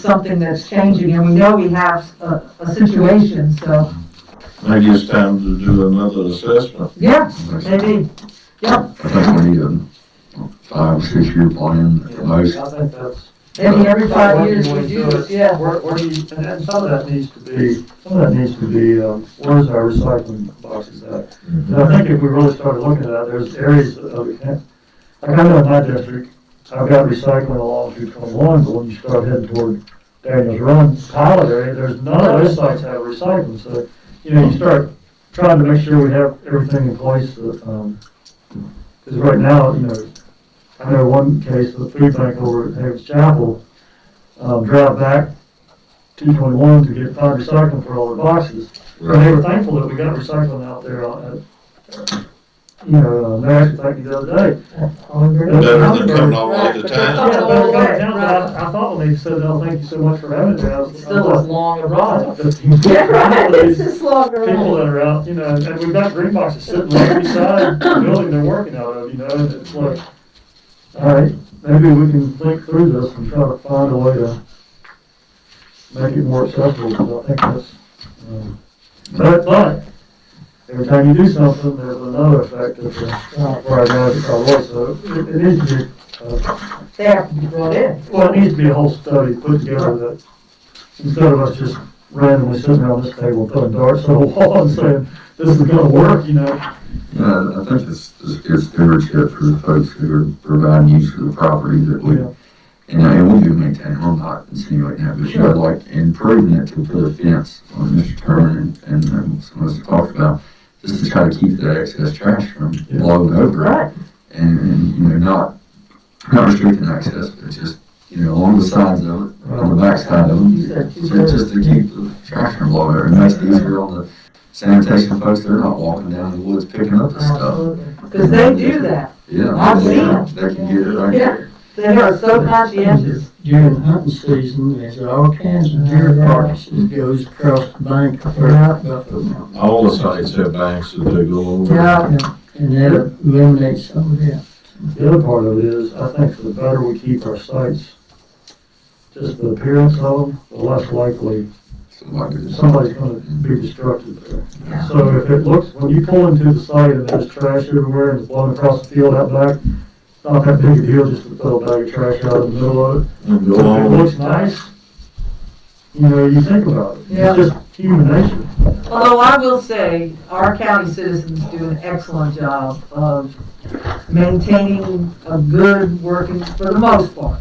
something that's changing, and we know we have a, a situation, so, Maybe it's time to do another assessment. yeah, I maybe, yeah. think we need a five, six year plan at the most. I think that's. Maybe every five Well, years when we do it, this, yeah, Where, where you, and then some of that needs to be, some of that needs to be, um, where's our recycling boxes at? And I think if we really started looking at that, there's areas of, like I know in my district, I've got recycling along through twenty-one, but when you start heading toward Daniel's Run pilot area, there's none of those sites have recycling, so, you know, you start trying to make sure we have everything in place, that, um, because right now, you know, I know one case with food bank over at Davis Chapel, um, drive back two twenty-one to get find recycling for all their boxes. And they were thankful that we got recycling out there, uh, you know, uh, Nash, thank you the other day. Better than coming all the way to town. Yeah, but it got down, but I, I thought when they said, oh, thank you so much for having us. it's still as long a run. Yeah, longer people that are out, you know, and we've got green boxes sitting right beside the building they're working out of, you know, and it's like, all right, maybe we can think through this and try to find a way to make it more accessible, because I think that's, um, but, but, every time you do something, there's another effect of the, uh, where I know it's all was, so it, it needs to be, uh, They have to be brought in, well, it needs to be a whole study put together that, instead of us just randomly sitting around this table putting darts on the wall and saying, this is gonna work, you know? Yeah, Uh, I think it's, it's good stewardship for the folks who are providing use of the property that we, Yeah. and, and we do maintain home occupancy have but you would like improving it to put a fence on Mr. Turner and, and um, some of us talked about, just to try to keep that excess trash from Yeah. blowing over. right, and, and you know, not not restricting access, but just you know, along the sides of it, on the back side of you them, said two so thirds. just to keep the trash from blowing over. It makes it easier on the sanitation folks; they're not walking down the woods picking up the stuff. Because they do that, Yeah, I've seen it. They can get it right Yeah. there. they are so conscientious, during hunting season, there's all kinds of deer uh, carcasses goes across the bank of Burnt Buffalo Mountain. All the sites have banks that they go over. yeah, And that eliminates some of that. The other part of it is, I think the better we keep our sites, just the appearance of them, the less likely Somebody just- somebody's gonna be destructive there. So if it looks, when you pull into the site and there's trash everywhere and it's blowing across the field out back, it's not that big a deal just to throw a bag of trash out in the middle of it. And If go it on. looks nice, you know, you think about it. Yeah. It's just human nature. Although I will say, our county citizens do an excellent job of maintaining a good working, for the most part.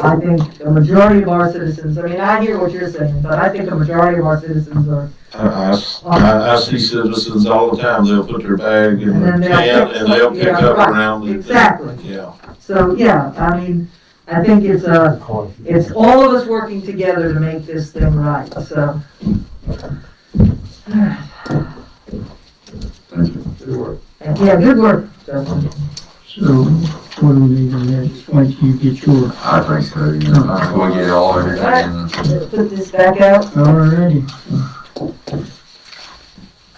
I think the majority of our citizens, I mean, I hear what you're saying, but I think the majority of our citizens are, I, I s- I- I see citizens all the time, they'll put their bag in And the then they'll can pick- and they'll pick yeah, up right. around the. Exactly. Yeah. so, yeah, I mean, I think it's a, it's all of us working together to make this thing right, so. Thank you. Yeah, good work, Justin. So what do we need to do? Just wait till you get your, I think so. You know, I will get it all everything. And, Let's put this back out. already,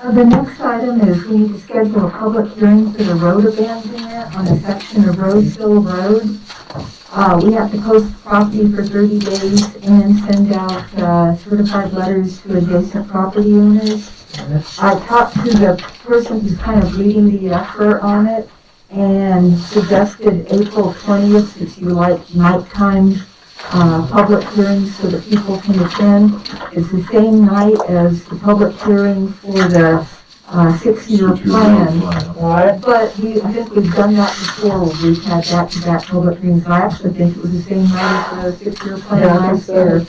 Uh, The next item is we need to schedule a public hearing for the road abandonment on a section of Roseville Road. Uh, we have to post property for thirty days and send out, uh, certified letters to adjacent property owners. I talked to the person who's kind of leading the effort on it and suggested April twentieth, if you like, nighttime, uh, public hearing so that people can attend. It's the same night as the public hearing for the uh, six-year plan. But we, I think we've done that before, where we've had back-to-back public hearings. I actually think it was the same night as the six-year Yeah, plan I think last so. year.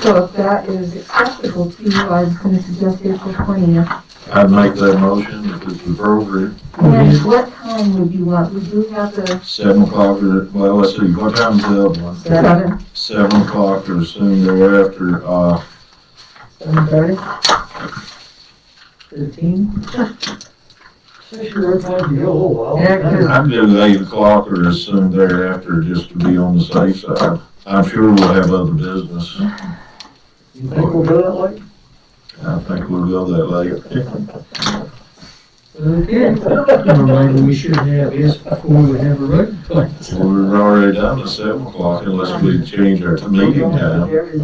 So if that is acceptable to you, I was going to suggest April twentieth. I'd make that motion if it's appropriate, Mm-hmm. And what time would you want? Would you have the seven o'clock or, well, let's see, what time's the other one? seven? Seven o'clock or soon thereafter, uh, Seven thirty? Fifteen? Sure, it's like you go a little while. Yeah. I'd do eight o'clock or as soon thereafter, just to be on the safe side. I'm sure we'll have other business. You think we'll go that way? I think we'll go that late. Okay, well, maybe we should have this before we have a road plan. Well, we're already down to seven o'clock unless we change our meeting time.